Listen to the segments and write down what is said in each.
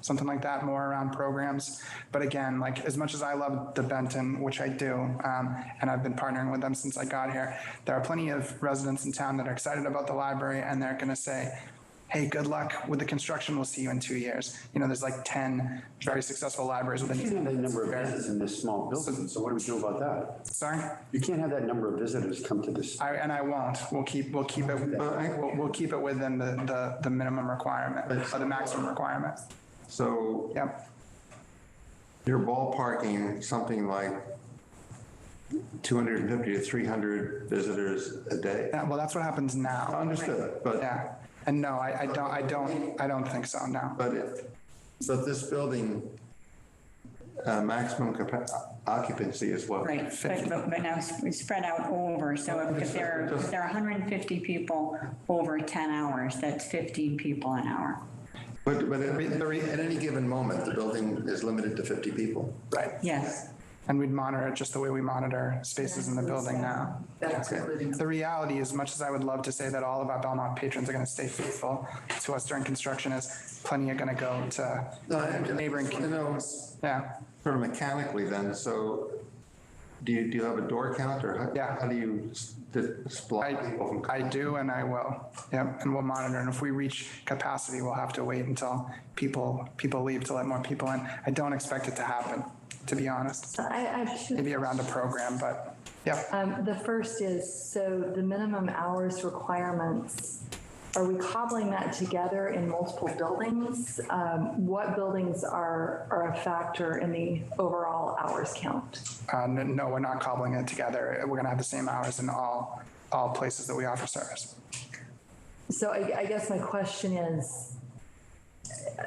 something like that, more around programs. But again, like as much as I love the Benton, which I do, um, and I've been partnering with them since I got here, there are plenty of residents in town that are excited about the library and they're going to say, hey, good luck with the construction. We'll see you in two years. You know, there's like 10 very successful libraries within. You can't have that number of Very- visitors in this small building, so what do we do about that? Sorry? You can't have that number of visitors come to this. I, and I won't. We'll keep, we'll keep it, we'll, we'll keep it within the, the, the minimum requirement, or the maximum requirement. So Yep. you're ballparking something like 250 to 300 visitors a day? Yeah, well, that's what happens now. Understood, but, Yeah. And no, I, I don't, I don't, I don't think so, no. but it, but this building, uh, maximum capa- occupancy is what? Right, but, but but now it's it's spread out over, so if- if there, are- if there are 150 people over 10 hours, that's 15 people an hour. But, but at at any given moment, the building is limited to 50 people. Right. Yes, And we'd monitor it just the way we monitor spaces in the building now. That's Okay. including. The reality, as much as I would love to say that all of our Belmont patrons are going to stay faithful to us during construction, is plenty are going to go to, Neighboring You know, yeah. sort of mechanically then, so do you, do you have a door count or how? Yeah. How do you s- di- split people I, from? I do and I will. Yep, and we'll monitor. And if we reach capacity, we'll have to wait until people, people leave to let more people in. I don't expect it to happen, to be honest. So I, I should, Maybe around a program, but yeah, um, the first is, so the minimum hours requirements, are we cobbling that together in multiple buildings? Um, what buildings are, are a factor in the overall hours count? uh, n- no, we're not cobbling it together. We're going to have the same hours in all, all places that we offer service. So I, I guess my question is,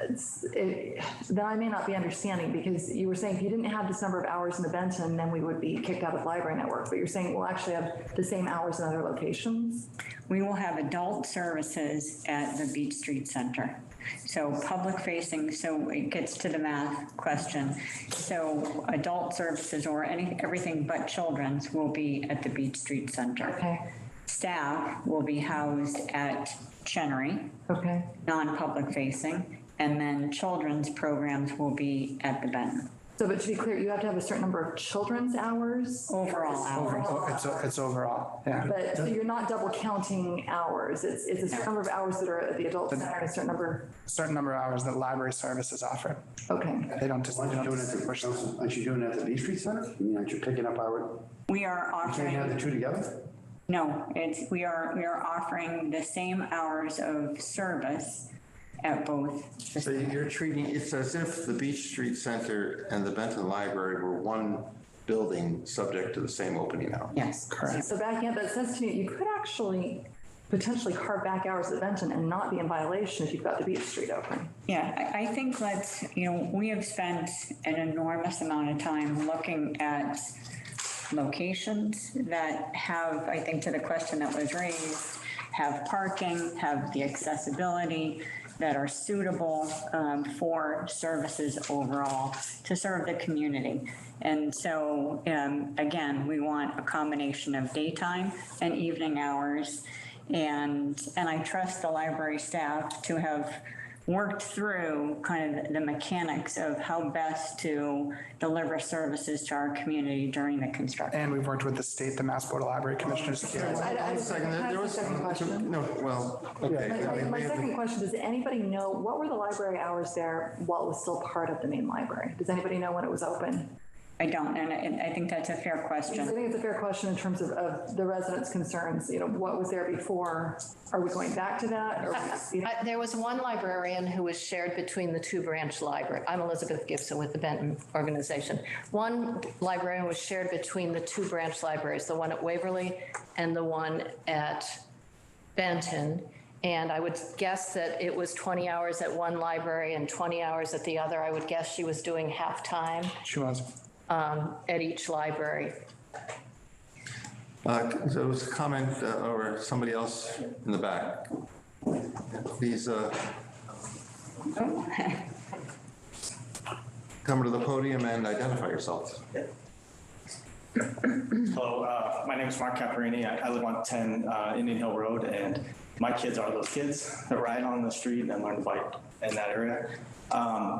it's- it- that I may not be understanding, because you were saying if you didn't have this number of hours in the Benton, then we would be kicked out of the library network, but you're saying we'll actually have the same hours in other locations? we will have adult services at the Beach Street Center. So public facing, so it gets to the math question. So adult services or any, everything but children's will be at the Beach Street Center. Okay, Staff will be housed at Chenery. okay, non-public facing, and then children's programs will be at the Benton. so but to be clear, you have to have a certain number of children's hours? Overall Over- hours, It's, it's overall, yeah. But so you're not double counting hours, it's, it's a certain number of hours that are at the adult center, and a certain number, Certain number of hours that library services offer. okay. They don't just, they Aren't you don't doing it at just the, push aren't you doing it at the Beach Street Center? I mean, aren't you picking up our, we are can't you have the offering, two together? no, it's, we are, we are offering the same hours of service at both. So you're treating, it's as if the Beach Street Center and the Benton Library were one building subject to the same opening hours. Yes. Correct. So backing up, that says to me, you could actually potentially carve back hours at Benton and not be in violation if you've got the Beach Street open. Yeah, I, I think let's, you know, we have spent an enormous amount of time looking at locations that have, I think to the question that was raised, have parking, have the accessibility, that are suitable um, for services overall to serve the community. And so, um, again, we want a combination of daytime and evening hours. And, and I trust the library staff to have worked through kind of the mechanics of how best to deliver services to our community during the construction. And we've worked with the state, the Mass Board of Library Commissioners. I- I- One second, there- I have there a was- second question. No, well, okay. My- I My mean, we my have to- second question, does anybody know, what were the library hours there while it was still part of the main library? Does anybody know when it was open? I don't, and I, and I think that's a fair I question. think it's a fair question in terms of, of the residents' concerns, you know, what was there before? Are we going back to that? Are we exceeding- I- There was one librarian who was shared between the two branch library. I'm Elizabeth Gibson with the Benton Organization. One librarian was shared between the two branch libraries, the one at Waverly and the one at Benton. And I would guess that it was 20 hours at one library and 20 hours at the other. I would guess she was doing half-time She was. um, at each library. Uh, There was a comment uh, or somebody else in the back. Please uh, come to the podium and identify yourself. Hello, uh, my name is Mark Caparini. I, I live on 10 uh, Indian Hill Road, and my kids are those kids that ride on the street and learn to bike in that area. Um,